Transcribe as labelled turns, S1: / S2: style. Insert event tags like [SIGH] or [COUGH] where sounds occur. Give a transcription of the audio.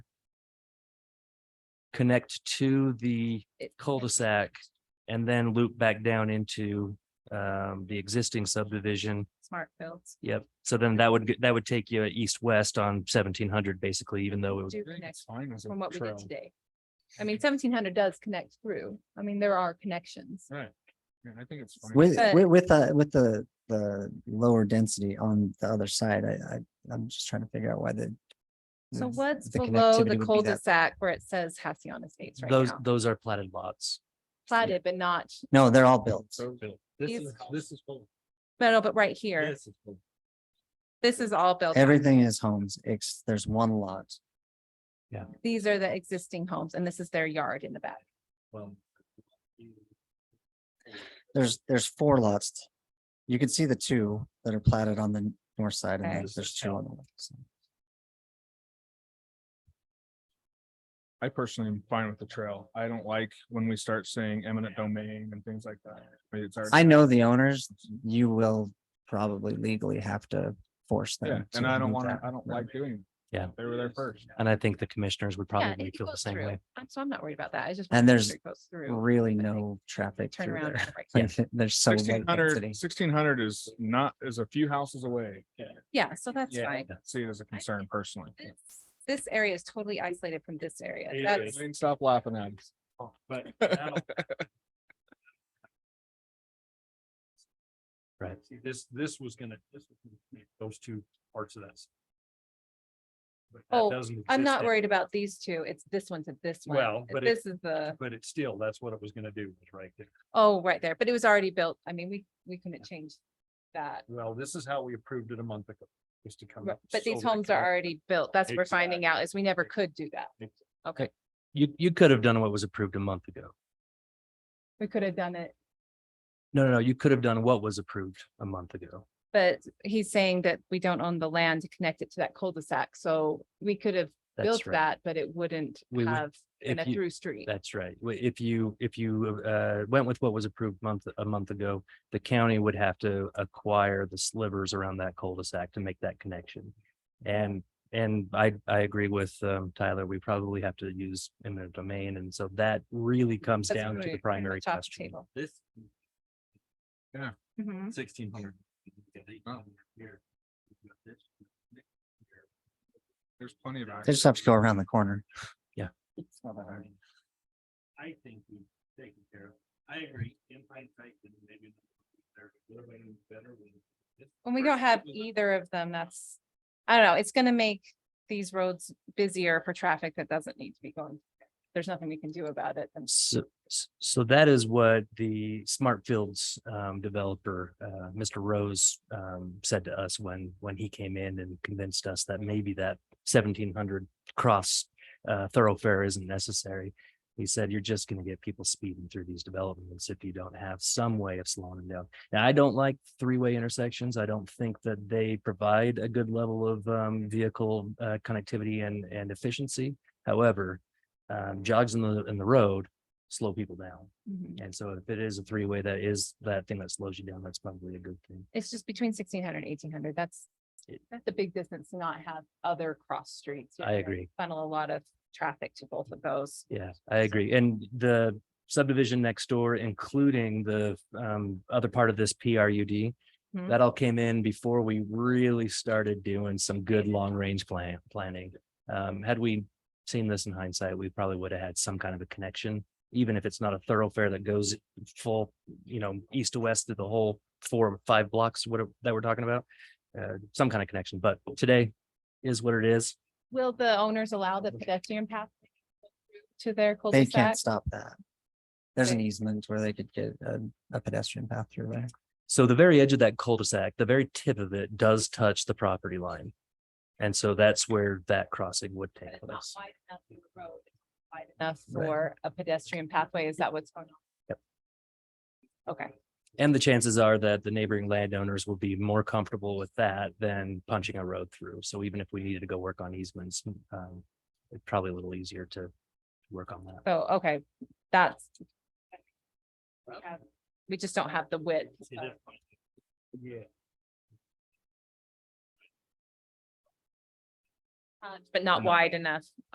S1: connect to the cul-de-sac and then loop back down into um, the existing subdivision.
S2: Smart builds
S1: Yep. So then that would, that would take you east-west on seventeen hundred basically, even though it was,
S2: do
S3: think
S2: connect
S3: it's fine as a
S2: from what we
S3: trail.
S2: did today. I mean, seventeen hundred does connect through. I mean, there are connections.
S3: Right. Yeah, I think it's fine.
S4: With,
S2: But-
S4: with, with the, with the, the lower density on the other side, I, I, I'm just trying to figure out why the.
S2: So
S4: the-
S2: what's
S4: the
S2: below the
S4: connectivity would be that-
S2: cul-de-sac where it says Hacienda Estates right
S1: those,
S2: now?
S1: those are platted lots.
S2: Platted, but not,
S4: No, they're all built.
S3: So this
S2: These-
S3: is, this is. full.
S2: no, no, but right here,
S3: This is full.
S2: this is all built. on.
S4: Everything is homes. It's, there's one lot.
S2: These are the existing homes and this is their yard in the back.
S3: Well,
S4: There's, there's four lots. You can see the two that are platted on the north side and
S2: Okay.
S4: there's- there's two on the left. side.
S3: I personally am fine with the trail. I don't like when we start saying eminent domain and things like that. I mean, it's already-
S4: I know the owners, you will probably legally have to force
S3: Yeah,
S4: them.
S3: and
S4: to
S3: I don't
S4: move
S3: want to,
S4: that.
S3: I don't like doing. it.
S1: Yeah.
S3: They were there first.
S1: And I think the commissioners would
S2: Yeah,
S1: probably
S2: it
S1: feel the
S2: goes
S1: same
S2: through.
S1: way.
S2: I'm- So I'm not worried about that. I just.
S4: And
S2: wanna make
S4: there's
S2: sure it goes through,
S4: Really
S2: I think
S4: no traffic
S2: Turn
S4: through
S2: around.
S4: there.
S2: and right-
S4: Like, [LAUGHS] there's so. low
S3: Sixteen hundred.
S4: density.
S3: 1600 is not, is a few houses away. Yeah.
S2: Yeah, so that's fine.
S3: See it as a concern personally.
S2: This- This area is totally isolated from this area.
S3: Hey,
S2: That's,
S3: Wayne, Stop laughing at us.
S5: Oh,
S2: [LAUGHS]
S1: But. Right.
S5: This, this was gonna, this was gonna be those two parts of that. But that
S2: Oh,
S5: doesn't
S2: I'm
S5: exist
S2: not
S5: now.
S2: worried about these two. It's this one to this one.
S5: Well, but it-
S2: This is the,
S5: But it's still, that's what it was gonna do, was right there.
S2: oh, right there, but it was already built. I mean, we, we couldn't change that.
S5: Well, this is how we approved it a month ago, was to
S1: Um,
S5: come.
S2: Ri-
S5: up
S2: But these
S5: solely to
S2: homes are
S5: come up-
S2: already built. That's what we're finding
S5: Exactly.
S2: out is we never could do that. Okay,
S1: You, you could have done what was approved a month ago.
S2: we could have done it,
S1: No, no, no, you could have done what was approved a month ago.
S2: but he's saying that we don't own the land to connect it to that cul-de-sac, so we could have built
S1: That's right.
S2: that, but it wouldn't
S1: We would-
S2: have been a
S1: If you-
S2: through street.
S1: That's right. Wa- If you, if you uh, went with what was approved month, a month ago, the county would have to acquire the slivers around that cul-de-sac to make that connection. And, and I, I agree with um, Tyler, we probably have to use eminent domain. And so that really comes
S2: That's
S1: down
S2: what
S1: to
S2: we-
S1: the
S2: we
S1: primary
S2: talked
S1: question.
S2: table.
S5: This
S4: Hmm?
S2: Mhm.
S5: sixteen hundred.
S3: There's plenty of.
S4: They just have to go around the corner.
S5: I think we've taken care of, I agree, in hindsight, then maybe there would have been better when. this
S2: When we don't
S5: first
S2: have
S5: was
S1: Mm-hmm.
S5: a-
S2: either of them, that's, I don't know, it's gonna make these roads busier for traffic that doesn't need to be going. There's nothing we can do about it. and-
S1: So, s- so that is what the Smart Fields um, developer, uh, Mr. Rose, um, said to us when, when he came in and convinced us that maybe that seventeen hundred cross uh, thoroughfare isn't necessary. He said, you're just gonna get people speeding through these developments if you don't have some way of slowing them down. Now, I don't like three-way intersections. I don't think that they provide a good level of um, vehicle uh, connectivity and, and efficiency. However, um, jogs in the, in the road slow people down.
S2: Mhm.
S1: And so if it is a three-way, that is that thing that slows you down, that's probably a good thing.
S2: It's just between sixteen hundred and eighteen hundred. That's,
S1: It-
S2: that's a big distance to not have other cross streets. You're
S1: I
S2: gonna
S1: agree.
S2: Funnel a lot of traffic to both of those.
S1: Yeah, I agree. And the subdivision next door, including the um other part of this PRUD.
S2: Mhm.
S1: That all came in before we really started doing some good long-range plan planning. Um, had we seen this in hindsight, we probably would have had some kind of a connection. Even if it's not a thoroughfare that goes full, you know, east to west through the whole four, or five blocks, what that we're talking about. Uh, some kind of connection, but today is what it is.
S2: Will the owners allow
S1: Mm-hmm.
S2: the pedestrian path to their
S4: They
S2: cul-de-sac?
S4: can't stop that. There's an
S2: Right.
S4: easement where they could get a, a pedestrian path through there.
S1: So the very edge of that cul-de-sac, the very tip of it does touch the property line. And so that's where that crossing would
S2: But
S1: take
S2: it's not
S1: place.
S2: wide enough for the road, it's not wide Enough for a pedestrian pathway. Is that what's going on?
S1: Yep.
S2: Okay,
S1: And the chances are that the neighboring landowners will be more comfortable with that than punching a road through. So even if we needed to go work on easements, um, it's probably a little easier to work on that.
S2: so, Oh, okay, that's. we have- We just don't have the width. of-
S5: Yeah.
S2: But um, not wide enough